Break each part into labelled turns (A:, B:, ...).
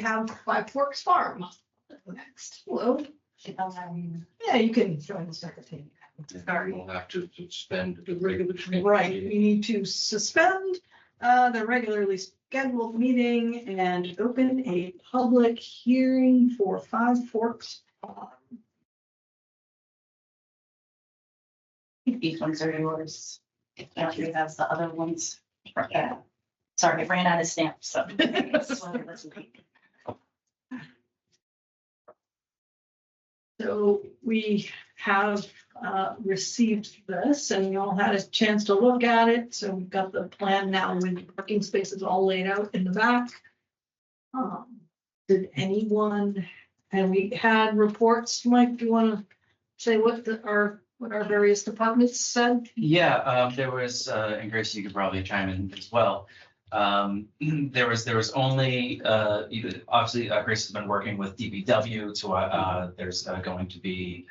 A: have Five Forks Farm next. Hello.
B: Um,
A: Yeah, you can join the secretary. Sorry.
C: We'll have to suspend the regular.
A: Right, we need to suspend uh, the regularly scheduled meeting and open a public hearing for Five Forks. Farm.
B: These ones are yours. If Andrew has the other ones. Yeah. Sorry, I ran out of stamps, so.
A: So we have uh, received this and we all had a chance to look at it. So we've got the plan now with parking spaces all laid out in the back. Um, Did anyone, and we had reports, Mike, do you want to say what the, our, what our various departments said?
D: Yeah, um, there was, uh, and Grace, you could probably chime in as well. Um, there was, there was only, uh, you- obviously, uh, Grace has been working with DBW to, uh, there's uh, going to be,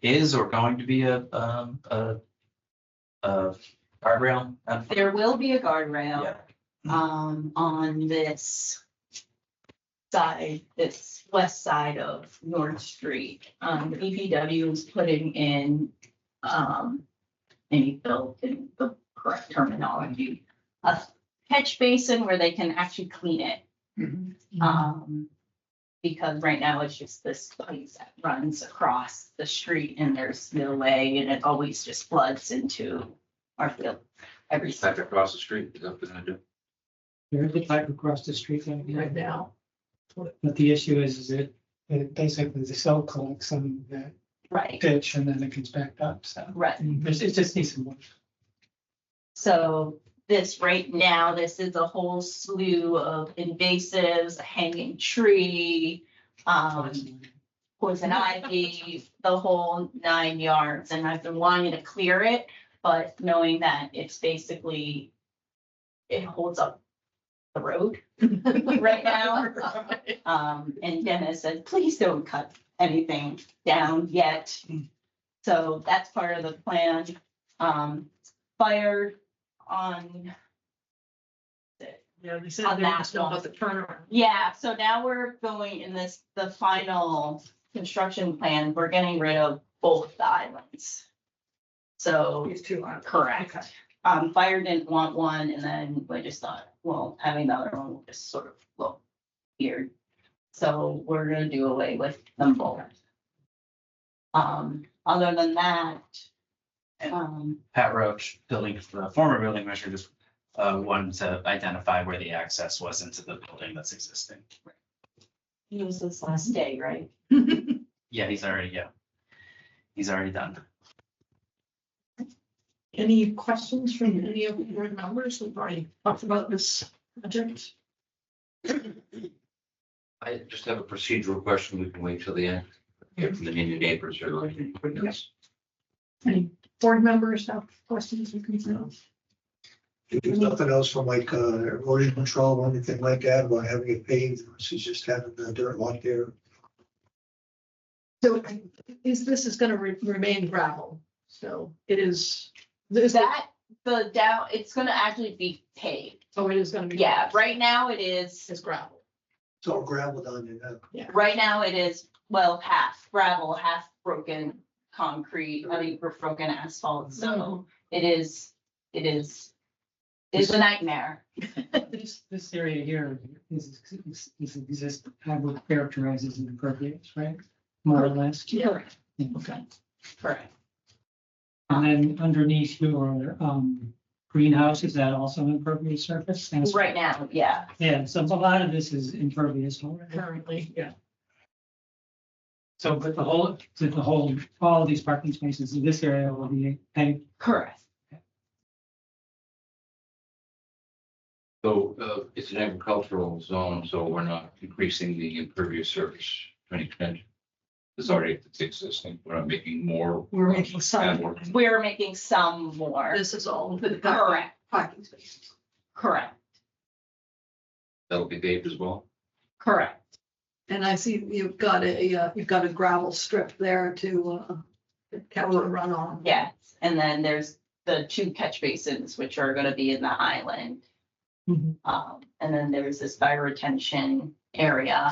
D: is or going to be a, um, a, a guardrail. Uh,
B: There will be a
D: yeah.
B: guardrail, um, on this side, this west side of North Street. Um, the EPW is putting in, um, and he built in the correct terminology, a catch basin where they can actually clean it. Um, because right now it's just this place that runs across the street and there's no way and it always just floods into our field every
C: Have to
B: summer.
C: cross the street. is that what I do?
E: There's a pipe across the street right
A: Right
E: now,
A: now,
E: but the issue is, is it, it basically the cell collects some of that
B: Right,
E: ditch and then it gets backed up, so.
B: right.
E: There's, it just needs some work.
B: So this right now, this is a whole slew of invasives, a hanging tree, um, poison ivy, the whole nine yards, and I've been wanting to clear it, but knowing that it's basically, it holds up the road right now. Um, and Dennis said, please don't cut anything down yet. So that's part of the plan. Um, fire on,
A: yeah, they said
B: On
A: they were
B: that
A: just about the turnaround.
B: yeah, so now we're going in this, the final construction plan, we're getting rid of both the islands. So,
A: These two are.
B: correct. Um, fire didn't want one, and then we just thought, well, having the other one will just sort of look weird. So we're gonna do away with them both. Um, other than that, um,
D: Pat Roach, building, the former building commissioner, just, uh, wanted to identify where the access was into the building that's existing.
B: it was this last day, right?
D: Yeah, he's already, yeah. He's already done.
A: Any questions from any of your members? We've already talked about this project.
C: I just have a procedural question. We can wait till the end. If the new neighbors are like.
A: Any board members have questions or concerns?
F: If there's nothing else from like uh, erosion control or anything like that, about having it paved, she's just having the dirt lot there.
A: So is this is gonna re- remain gravel, so it is, is that,
B: That, the down, it's gonna actually be paved.
A: oh, it is gonna be.
B: Yeah, right now it is,
A: It's gravel.
F: It's all gravel down there now.
B: right now it is, well, half gravel, half broken concrete, I mean, we're broken asphalt,
A: Mm-hmm.
B: so it is, it is. It's a nightmare.
E: This, this area here is, is, is exist, I would characterize as impervious, right? More or less.
A: Yeah.
B: Okay. Correct.
E: And then underneath your, um, greenhouse, is that also impervious surface? And it's-
B: Right now, yeah.
E: Yeah, so a lot of this is impervious already.
A: Currently, yeah.
E: So, but the whole, the whole, all of these parking spaces in this area will be paved.
B: Correct.
C: So uh, it's an agricultural zone, so we're not increasing the impervious surface to any extent. It's already it's existing. We're not making more.
A: We're making
C: and
A: some,
C: more-
B: We're making some more.
A: this is all the back
B: Correct,
A: parking spaces.
B: correct,
C: That'll be paved as well.
B: correct.
A: And I see you've got a, uh, you've got a gravel strip there to, uh, catch the runoff.
B: Yes. And then there's the two catch basins, which are gonna be in the island.
A: Mhm.
B: Um, and then there's this fire retention area